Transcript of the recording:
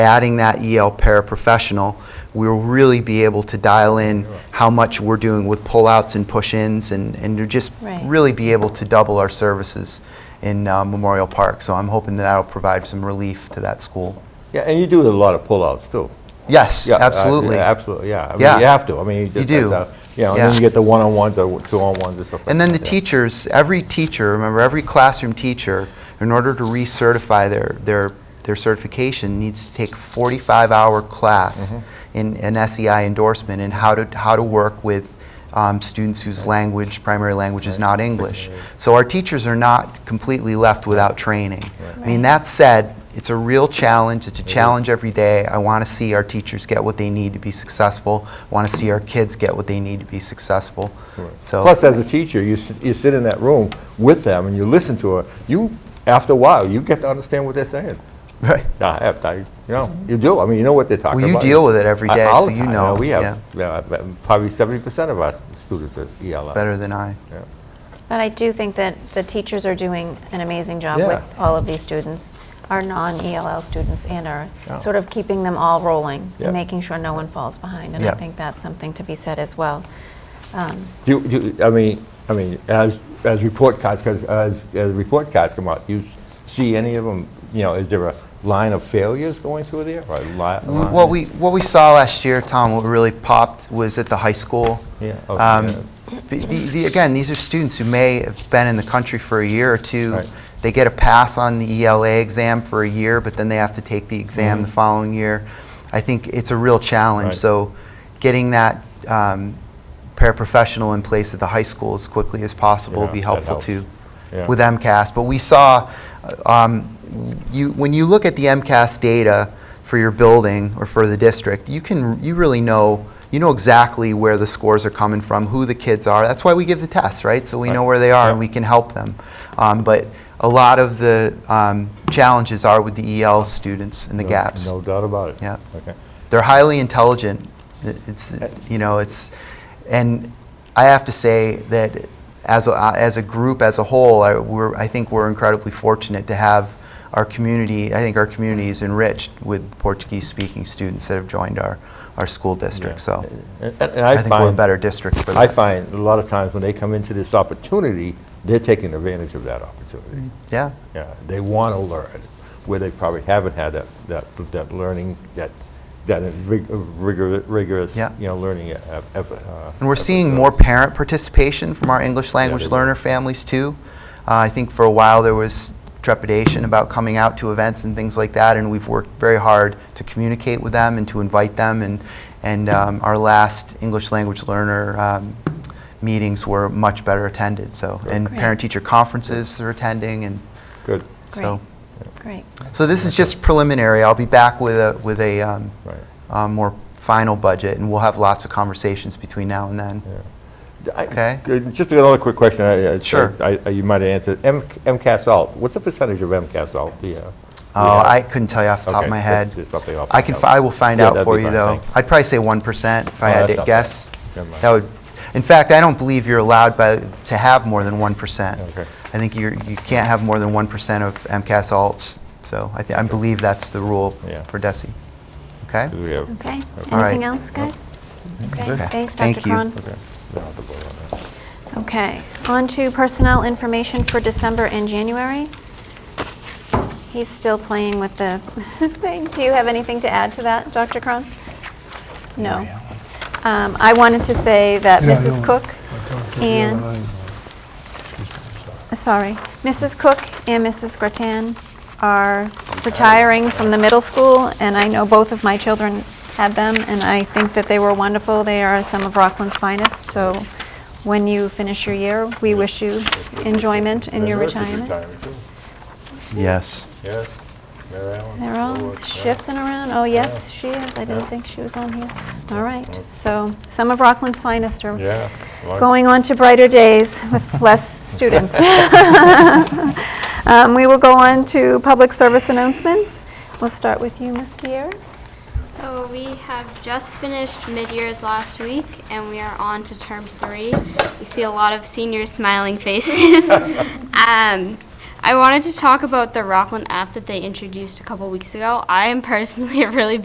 adding that EL paraprofessional, we'll really be able to dial in how much we're doing with pullouts and push-ins and, and to just Right. really be able to double our services in uh, Memorial Park. So I'm hoping that that'll provide some relief to that school. Yeah, and you do a lot of pullouts too. Yes, Yeah, uh, absolutely. yeah, Absolutely, yeah. I mean, Yeah. You have to, I mean, you just. do. that's how- You know, and then Yeah. you get the one-on-ones or two-on-ones or something. And then the teachers, every teacher, remember, every classroom teacher, in order to recertify their, their, their certification, needs to take a 45-hour class in an SEI endorsement in how to, how to work with um, students whose language, primary language is not English. So our teachers are not completely left without training. I mean, Right. that said, it's a real challenge. It's a challenge every day. I want to see our teachers get what they need to be successful. I want to see our kids get what they need to be successful. So Plus, as a teacher, you sit, you sit in that room with them and you listen to her. You, after a while, you get to understand what they're saying. Right. I have, I, you know, you do. I mean, you know what they're talking Well, about. you deal with it every I- day, all so the you time. know, we yeah. have yeah, probably seventy percent of our students are ELL. better than I. Yeah. But I do think that the teachers are doing an amazing job with Yeah. all of these students, our non-ELL students and our, Yeah. sort of keeping them all rolling Yeah. and making sure no one falls behind. And Yeah. I think that's something to be said as well. Um, Do you, do you- I mean, I mean, as, as report cards, 'cause as, as report cards come out, you s- see any of them, you know, is there a line of failures going through there? Or a li- line? What Mm, we, what we saw last year, Tom, what really popped was at the high school. Yeah, oh, Um, the- the- the- Again, these are students who may have been in the country for a year or two. Right. They get a pass on the ELA exam for a year, but then they have to take the exam the following year. I think it's a real challenge. Mm-hmm. Right. So getting that um, paraprofessional in place at the high school as quickly as possible would be Yeah, that helpful helps. too. Yeah. With MCAS, but we saw, uh, um, you, when you look at the MCAS data for your building or for the district, you can, you really know, you know exactly where the scores are coming from, who the kids are. That's why we give the tests, right? So we know Right. where they are Yeah. and we can help them. Um, but a lot of the um, challenges are with the EL students and the No- gaps. No doubt about it. Yeah. Okay. They're highly intelligent. It- It's you know it's, and I have to say that as a, as a group as a whole, I, we're I think we're incredibly fortunate to have our community. I think our community is enriched with Portuguese speaking students that have joined our our school district. Yeah. So And, and I, I think we're a find, better district for that. I find a lot of times when they come into this opportunity, they're taking advantage of that opportunity. yeah. Yeah, they want to learn, where they probably haven't had that, that, that learning, that, that rig- rigor- rigorous, you Yeah. know, learning. e- ep- ep- uh, And we're seeing episodes. more parent participation from our English language they do. learner families too. Uh, I think for a while there was trepidation about coming out to events and things like that, and we've worked very hard to communicate with them and to invite them. And and um, our last English language learner um, meetings were much better attended. So and Great. parent teacher conferences are attending, and Good, Great, so great. so this is just preliminary. I'll be back with a with a um, right. uh, more final budget, and we'll have lots of conversations between now and then. D- I- Okay. good, Just another quick question. I- I- Sure. I- I- You might have answered. M- MCAS alt, what's the percentage of MCAS alt? do you have? Do you Oh, have? I couldn't tell you off the top Okay, of my that's- head. that's something I'll I find can, out. fi- I will find Yeah, out that'd for be you fine, though. thanks. I'd probably say 1% if I Oh, had that's to not bad. guess. Never mind. That would, in fact, I don't believe you're allowed by, to have more than 1%. Okay. I think you're, you can't have more than 1% of MCAS alts, so I thi- I believe that's the rule Yeah. for DESI. Okay? Do we have- Okay, All right. anything else, guys? Okay, Okay. thanks, Dr. Thank you. Cron. okay. No, the board on that. Okay, on to personnel information for December and January. He's still playing with the thing. Do you have anything to add to that, Dr. Cron? No. Um, I wanted to say that Yeah, I Mrs. know. Cook I talked to the and, other night, excuse me, I'm sorry. uh, sorry, Mrs. Cook and Mrs. Gratan are retiring from the middle school, and I know both of my children had them, and I think that they were wonderful. They are some of Rockland's finest, so when you finish your year, we wish you enjoyment in The your nurses retirement. retiring too. Yes. Yes, Mary Ellen. They're all Lord, Oh, yeah. shifting around. Oh, yes, she is. I Yeah. didn't think she was on here. All right. So some of Rockland's finest are Yeah. like- going on to brighter days with less students. Um, We will go on to public service announcements. We'll start with you, Ms. Gier. So we have just finished mid-years last week, and we are on to term three. You see a lot of seniors smiling faces. um, I wanted to talk about the Rockland app that they introduced a couple weeks ago. I am personally a really